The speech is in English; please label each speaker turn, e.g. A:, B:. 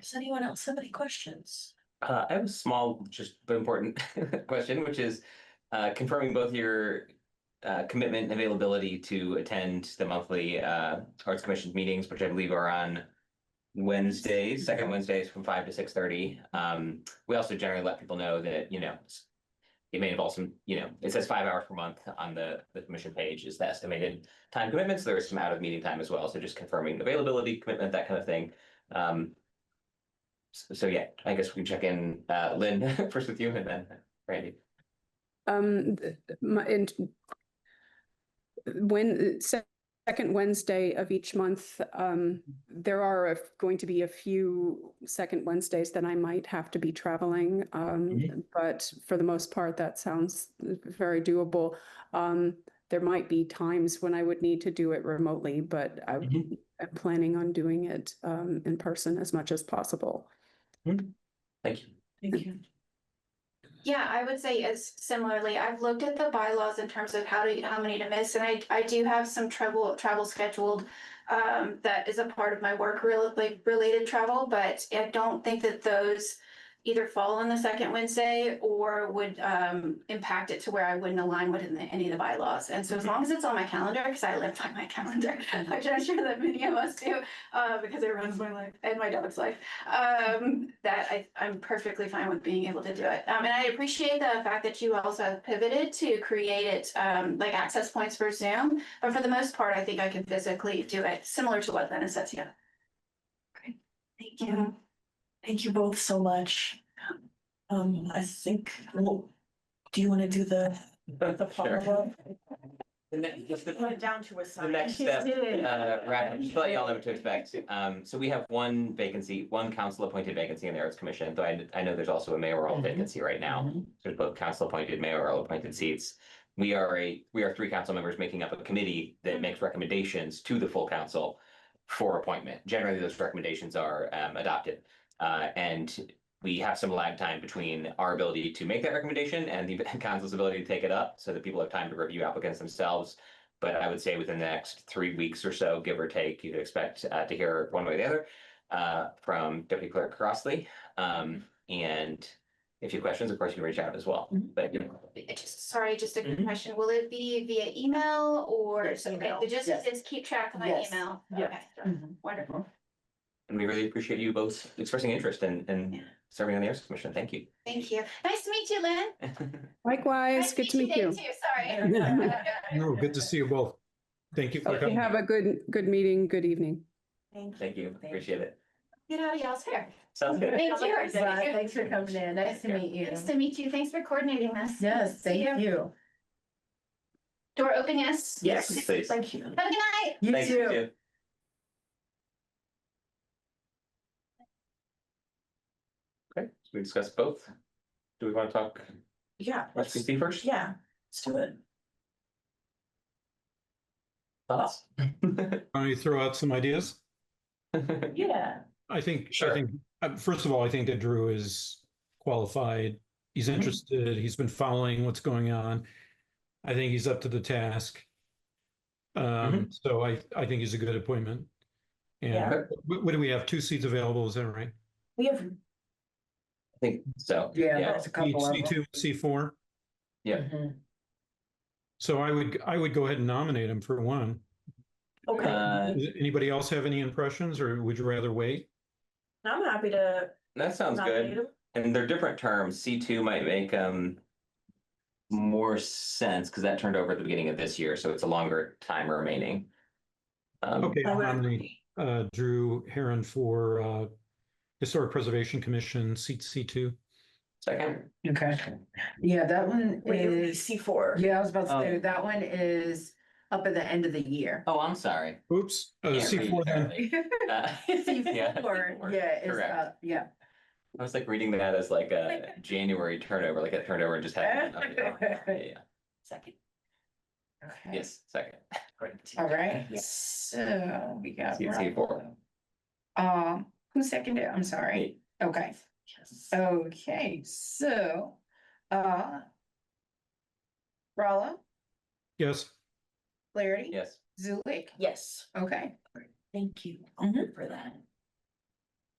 A: Does anyone else have any questions?
B: Uh, I have a small, just but important question, which is uh, confirming both your uh, commitment and availability to attend the monthly uh, Arts Commission meetings, which I believe are on Wednesdays, second Wednesdays from five to six thirty. Um, we also generally let people know that, you know, s- it may involve some, you know, it says five hours per month on the, the commission page is the estimated time commitments. There is some out of meeting time as well, so just confirming availability, commitment, that kind of thing. Um, so, so yeah, I guess we can check in, uh, Lynn first with you and then Randy.
C: Um, th- my, and when, se- second Wednesday of each month, um, there are a- going to be a few second Wednesdays that I might have to be traveling. Um, but for the most part, that sounds very doable. Um, there might be times when I would need to do it remotely, but I,
B: Mhm.
C: I'm planning on doing it, um, in person as much as possible.
B: Thank you.
A: Thank you.
D: Yeah, I would say as similarly, I've looked at the bylaws in terms of how to, how many to miss, and I, I do have some travel, travel scheduled. Um, that is a part of my work real, like related travel, but I don't think that those either fall on the second Wednesday or would, um, impact it to where I wouldn't align with in the- any of the bylaws. And so as long as it's on my calendar, because I live by my calendar, which I'm sure that many of us do, uh, because it runs my life and my dog's life um, that I, I'm perfectly fine with being able to do it. Um, and I appreciate the fact that you also have pivoted to create it, um, like access points for Zoom. But for the most part, I think I can physically do it, similar to what Lena says, yeah.
A: Thank you. Thank you both so much. Um, I think, well, do you want to do the, the follow-up?
B: The next, just the,
E: Went down to a
B: the
E: sign.
B: next step, uh, wrap, just to let y'all know what to expect. Um, so we have one vacancy, one council appointed vacancy in the Arts Commission, though I, I know there's also a mayoral
A: Mhm.
B: vacancy right now. There's both council appointed, mayoral appointed seats. We are a, we are three council members making up a committee that makes recommendations to the full council for appointment. Generally, those recommendations are um adopted. Uh, and we have some lag time between our ability to make that recommendation and the council's ability to take it up so that people have time to review applicants themselves. But I would say within the next three weeks or so, give or take, you'd expect uh to hear one way or the other uh from Deputy Clerk Crossley. Um, and if you have questions, of course, you can reach out as well,
A: Mhm.
B: but you know.
D: It just, sorry, just a quick
B: Mhm.
D: question. Will it be via email or
E: Yes,
D: something?
E: email,
D: The just
E: yes.
D: is keep track of my
E: Yes, Mm-hmm.
D: email.
E: yes.
D: Okay, Wonderful.
B: And we really appreciate you both expressing interest and and serving on the Arts Commission. Thank you.
D: Thank you. Nice to meet you, Lynn.
C: Likewise,
D: Nice
C: good to meet
D: Dave,
C: you.
D: too. Sorry.
F: No, good to see you both. Thank you for
C: Okay,
F: coming.
C: have a good, good meeting, good evening.
B: Thank you. Appreciate it.
D: Get out of y'all's hair.
B: Sounds good.
D: Thank you.
E: Bye. Thanks for coming in. Nice to
B: Yeah.
E: meet you.
D: Nice to meet you. Thanks for coordinating this.
E: Yes,
D: See
E: thank you.
D: Door open, yes?
E: Yes.
B: Please.
E: Thank you.
D: Have a good night.
E: You
B: Thank you.
E: too.
B: too. Okay, so we discussed both. Do we want to talk
A: Yeah, let's,
B: RSVP first?
A: yeah, let's do it.
B: Thoughts?
F: Why don't you throw out some ideas?
A: Yeah.
F: I think, I
B: Sure.
F: think, uh, first of all, I think that Drew is qualified. He's interested. He's been following what's going on. I think he's up to the task. Um, so I, I think he's a good appointment.
A: Yeah.
F: And what, what do we have? Two seats available, is that right?
A: We have,
B: I think so.
E: Yeah, there's a
F: C
E: couple of them.
F: two, C four.
B: Yeah.
E: Mhm.
F: So I would, I would go ahead and nominate him for one.
A: okay,
B: Uh,
F: Does Anybody else have any impressions or would you rather wait?
A: I'm happy to.
B: that sounds
A: nominate
B: good.
A: him.
B: And they're different terms. C two might make um more sense because that turned over at the beginning of this year, so it's a longer time remaining. Um,
F: Okay,
A: I
F: I'll
A: would-
F: nominate uh, Drew Heron for uh, Historic Preservation Commission, seat C2.
B: Second,
E: Okay. Yeah, that one
A: Wait,
E: is,
A: C four.
E: yeah, I was about to
B: Oh.
E: say, that one is up at the end of the year.
B: oh, I'm sorry.
F: Oops, uh,
B: Can't read
F: C4 then.
B: apparently. Uh, yeah,
E: Or- Yeah, it's,
B: Correct.
E: uh, yeah.
B: I was like reading that as like a January turnover, like it turned over and just had. Yeah, yeah.
A: Second.
E: Okay.
B: yes, second.
E: All right,
A: Yes.
E: so we got.
B: See- see four.
E: Bravo. Um, who seconded? it? I'm sorry.
B: Me.
E: Okay, Uh, okay, so, uh. Rollo,
F: Yes,
E: Flaherty.
B: Yes,
E: Zulik,
A: Yes,
E: okay.
A: thank you for that.